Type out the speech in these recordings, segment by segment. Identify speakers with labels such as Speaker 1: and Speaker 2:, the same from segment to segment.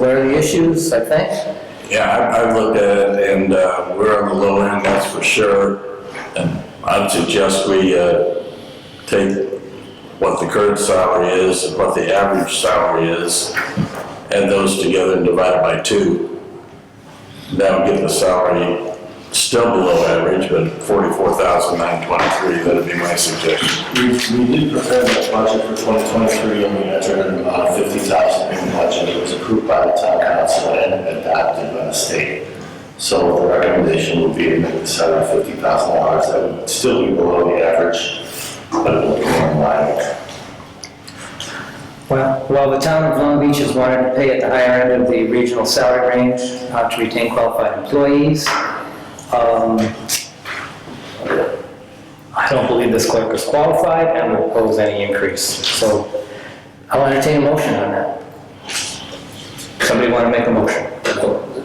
Speaker 1: learn the issues, I think.
Speaker 2: Yeah, I- I've looked at it, and uh, we're on the low end, that's for sure. And I'd suggest we uh, take what the current salary is and what the average salary is, add those together and divide it by two. That would get the salary still below average, but $44,923, that'd be my suggestion.
Speaker 3: We, we did prepare that budget for 2023 and we entered about 50,000 in the budget. It was approved by the town council and adopted by the state. So the recommendation would be to make the salary $50,000. That would still be below the average, but it would be more in line.
Speaker 1: Well, while the town of Long Beach has wanted to pay at the higher end of the regional salary range uh, to retain qualified employees, um, I don't believe this clerk is qualified and will oppose any increase. So I'll entertain a motion on that. Somebody want to make a motion?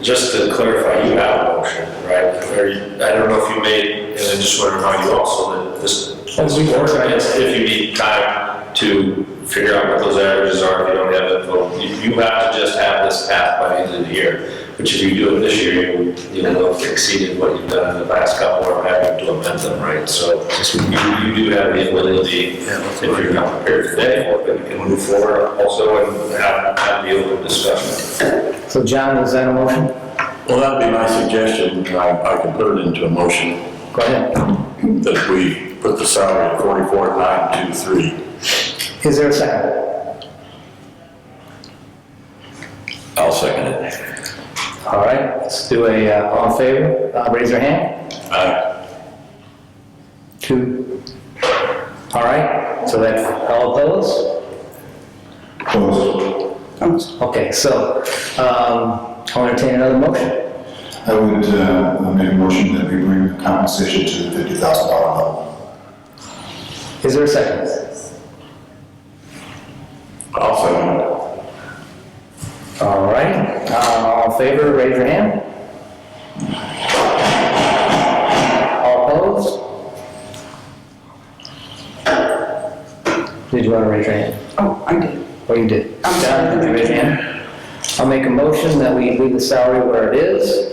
Speaker 4: Just to clarify, you have a motion, right? Or you- I don't know if you made, and I just want to remind you also that this,
Speaker 1: As we
Speaker 4: this
Speaker 1: work on it.
Speaker 4: ordinance, if you need time to figure out what those averages are, if you don't have info, you, you have to just have this path by the end of the year. Which if you do it this year, you- you'll know if exceeded what you've done in the last couple or having to amend them, right? So you, you do have the ability, if you're not prepared today, or you can move forward also and have, have the open discussion.
Speaker 1: So John, is that a motion?
Speaker 2: Well, that'd be my suggestion, and I I can put it into a motion.
Speaker 1: Go ahead.
Speaker 2: that we put the salary at forty-four, nine, two, three.
Speaker 1: Is there a second?
Speaker 2: I'll second it.
Speaker 1: All right, let's do a, uh, all in favor, Uh, raise your hand.
Speaker 2: Aye.
Speaker 1: Two. All right, so that's all opposed? Okay, so, um, I'll entertain another motion.
Speaker 5: I would uh, make a motion that we bring compensation to the fifty thousand dollar level.
Speaker 1: Is there a second?
Speaker 2: I'll second it.
Speaker 1: All right, uh, all in favor, raise your hand. All opposed? Did you want to raise your hand?
Speaker 6: Oh, I did.
Speaker 1: Oh, you did.
Speaker 6: I'm sorry.
Speaker 1: Down, did you raise your hand? I'll make a motion that we leave the salary where it is.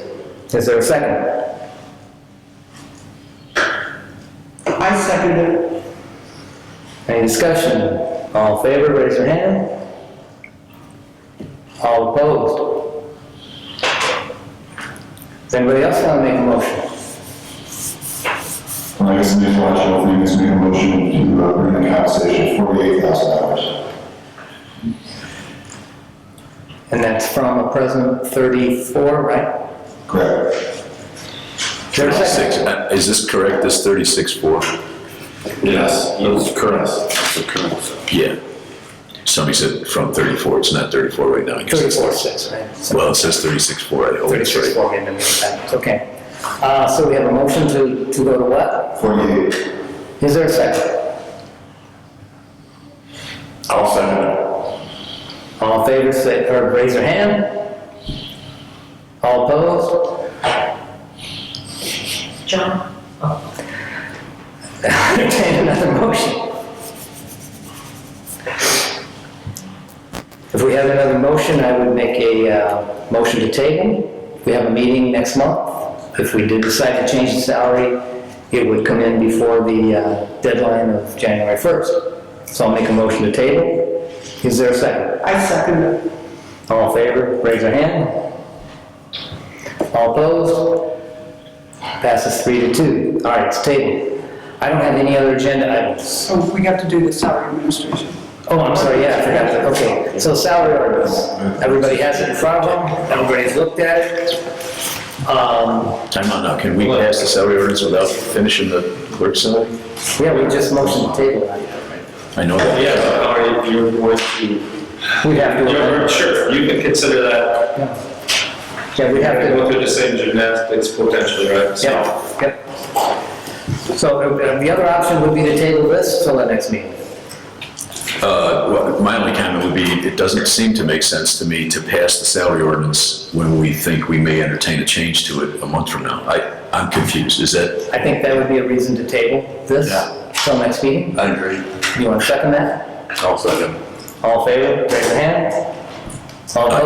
Speaker 1: Is there a second?
Speaker 6: I seconded it.
Speaker 1: Any discussion? All in favor, raise your hand. All opposed? Does anybody else want to make a motion?
Speaker 5: And I guess the next logical thing is make a motion to uh, bring the compensation to forty-eight thousand dollars.
Speaker 1: And that's from a present 34, right?
Speaker 5: Correct.
Speaker 1: Is there a second?
Speaker 2: is this correct, this thirty-six, four?
Speaker 3: Yes.
Speaker 2: Those current. The current.
Speaker 7: Yeah. Somebody said from 34, it's not 34 right now. I guess it's-
Speaker 1: 34.6, right?
Speaker 7: Well, it says 36.4, I hope it's right.
Speaker 1: 36.4, in the meantime, okay. Uh, So we have a motion to, to go to what?
Speaker 5: Forty-eight.
Speaker 1: Is there a second?
Speaker 2: I'll second
Speaker 1: All in favor, say, or raise your hand. All opposed?
Speaker 6: John?
Speaker 1: Entertain another motion. If we have another motion, I would make a uh, motion to table. We have a meeting next month. If we did decide to change the salary, it would come in before the uh, deadline of January 1st. So I'll make a motion to table. Is there a second?
Speaker 6: I seconded it.
Speaker 1: All in favor, raise your hand. All opposed? Passes three to two. All right, it's tabled. I don't have any other agenda items.
Speaker 6: So we have to do the salary administration.
Speaker 1: Oh, I'm sorry, yeah, I forgot that, okay. So salary orders, everybody has it in front of them, everybody's looked at it. Um,
Speaker 7: Time out now, can we pass the salary ordinance without finishing the clerk's salary?
Speaker 1: yeah, we just motioned to table it.
Speaker 7: I know that.
Speaker 4: Yeah, but how are you, you're going to,
Speaker 1: We have
Speaker 4: you're,
Speaker 1: to,
Speaker 4: sure, you can consider that,
Speaker 1: yeah, we have
Speaker 4: and
Speaker 1: to,
Speaker 4: go through the same gymnastics potentially, right? So-
Speaker 1: yeah, yep. So uh, the other option would be to table this till the next meeting.
Speaker 7: Uh, well, My only comment would be, it doesn't seem to make sense to me to pass the salary ordinance when we think we may entertain a change to it a month from now. I, I'm confused, is that,
Speaker 1: I think that would be a reason to table this till next meeting.
Speaker 2: it. I agree.
Speaker 1: You want to second that?
Speaker 2: I'll second it.
Speaker 1: All in favor, raise your hand. All opposed?